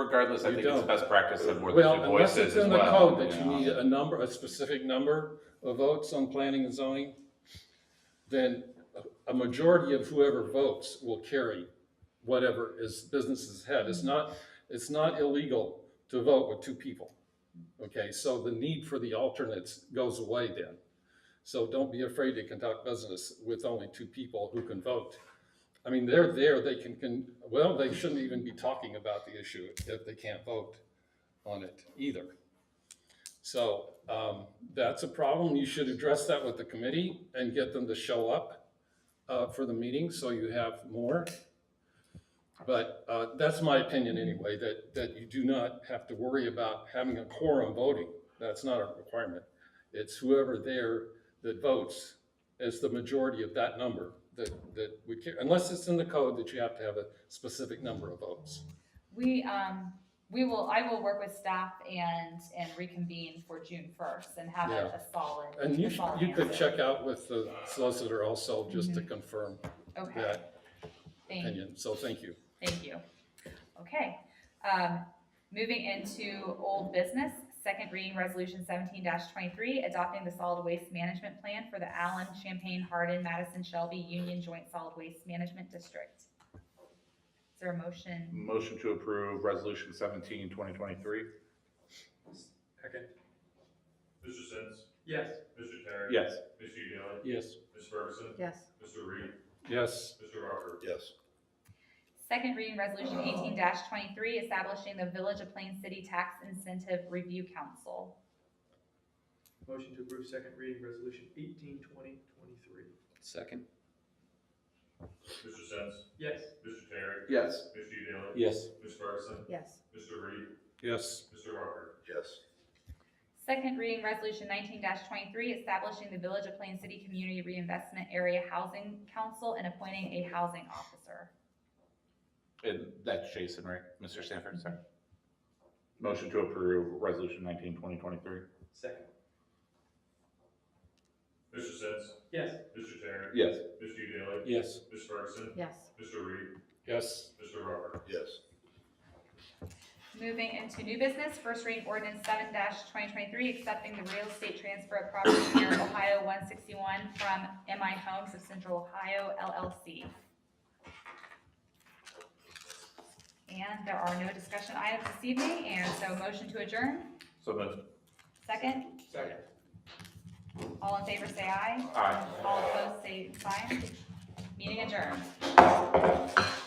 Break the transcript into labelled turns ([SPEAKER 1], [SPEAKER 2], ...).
[SPEAKER 1] regardless, I
[SPEAKER 2] You
[SPEAKER 1] think it's
[SPEAKER 2] don't.
[SPEAKER 1] best practice that we're the
[SPEAKER 2] Well, unless
[SPEAKER 1] voices
[SPEAKER 2] it's
[SPEAKER 1] as
[SPEAKER 2] in the
[SPEAKER 1] well.
[SPEAKER 2] code that you
[SPEAKER 1] know.
[SPEAKER 2] need a number, a specific number of votes on planning and zoning, then a- a majority of whoever votes will carry whatever is business's head. It's not, it's not illegal to vote with two people. Okay, so the need for the alternates goes away then. So don't be afraid to conduct business with only two people who can vote. I mean, they're there, they can, can, well, they shouldn't even be talking about the issue if they can't vote on it either. So um, that's a problem. You should address that with the committee and get them to show up uh, for the meeting so you have more. But uh, that's my opinion anyway, that, that you do not have to worry about having a quorum voting. That's not a requirement. It's whoever there that votes is the majority of that number that, that would care, unless it's in the code that you have to have a specific number of votes.
[SPEAKER 3] We, um, we will, I will work with staff and, and reconvene for June first and have a
[SPEAKER 2] Yeah.
[SPEAKER 3] a solid.
[SPEAKER 2] And you,
[SPEAKER 3] a
[SPEAKER 2] sh-
[SPEAKER 3] solid
[SPEAKER 2] you could
[SPEAKER 3] answer.
[SPEAKER 2] check out with the solicitor also, just to confirm
[SPEAKER 3] Okay,
[SPEAKER 2] that
[SPEAKER 3] thank,
[SPEAKER 2] opinion, so thank you.
[SPEAKER 3] thank you. Okay, um, moving into old business, second reading resolution seventeen twenty-three, adopting the solid waste management plan for the Allen, Champaign, Hardin, Madison, Shelby Union Joint Solid Waste Management District. Is there a motion?
[SPEAKER 1] Motion to approve resolution seventeen, twenty twenty-three?
[SPEAKER 4] Second.
[SPEAKER 5] Mr. Sins,
[SPEAKER 4] Yes.
[SPEAKER 5] Mr. Terry.
[SPEAKER 1] Yes.
[SPEAKER 5] Mr. Daly.
[SPEAKER 2] Yes.
[SPEAKER 5] Ms. Ferguson.
[SPEAKER 6] yes,
[SPEAKER 5] Mr. Reed.
[SPEAKER 2] Yes,
[SPEAKER 5] Mr. Rocker.
[SPEAKER 1] Yes.
[SPEAKER 3] Second reading resolution eighteen twenty-three, establishing the Village of Plain City Tax Incentive Review Council.
[SPEAKER 4] Motion to approve second reading resolution eighteen twenty twenty-three.
[SPEAKER 7] Second.
[SPEAKER 5] Mr. Sins,
[SPEAKER 4] Yes.
[SPEAKER 5] Mr. Terry.
[SPEAKER 7] Yes.
[SPEAKER 5] Mr. Daly.
[SPEAKER 2] Yes.
[SPEAKER 5] Ms. Ferguson.
[SPEAKER 6] yes,
[SPEAKER 5] Mr. Reed.
[SPEAKER 2] yes,
[SPEAKER 5] Mr. Rocker.
[SPEAKER 7] Yes.
[SPEAKER 3] Second reading resolution nineteen twenty-three, establishing the Village of Plain City Community Reinvestment Area Housing Council and appointing a housing officer.
[SPEAKER 1] And that's Jason, right? Mr. Sanford, sorry. Motion to approve resolution nineteen, twenty twenty-three?
[SPEAKER 4] Second.
[SPEAKER 5] Mr. Sins,
[SPEAKER 4] Yes.
[SPEAKER 5] Mr. Terry.
[SPEAKER 1] Yes.
[SPEAKER 5] Mr. Daly.
[SPEAKER 2] yes.
[SPEAKER 5] Ms. Ferguson.
[SPEAKER 6] yes,
[SPEAKER 5] Mr. Reed.
[SPEAKER 2] Yes.
[SPEAKER 5] Mr. Rocker.
[SPEAKER 7] Yes.
[SPEAKER 3] Moving into new business, first reading ordinance seven twenty twenty-three, accepting the real estate transfer of property near Ohio one sixty-one from MI Homes of Central Ohio LLC. And there are no discussion items this evening, and so motion to adjourn,
[SPEAKER 1] So moved.
[SPEAKER 3] second,
[SPEAKER 4] Second.
[SPEAKER 3] all in favor say aye,
[SPEAKER 1] Aye.
[SPEAKER 3] all opposed say fine, meeting adjourned.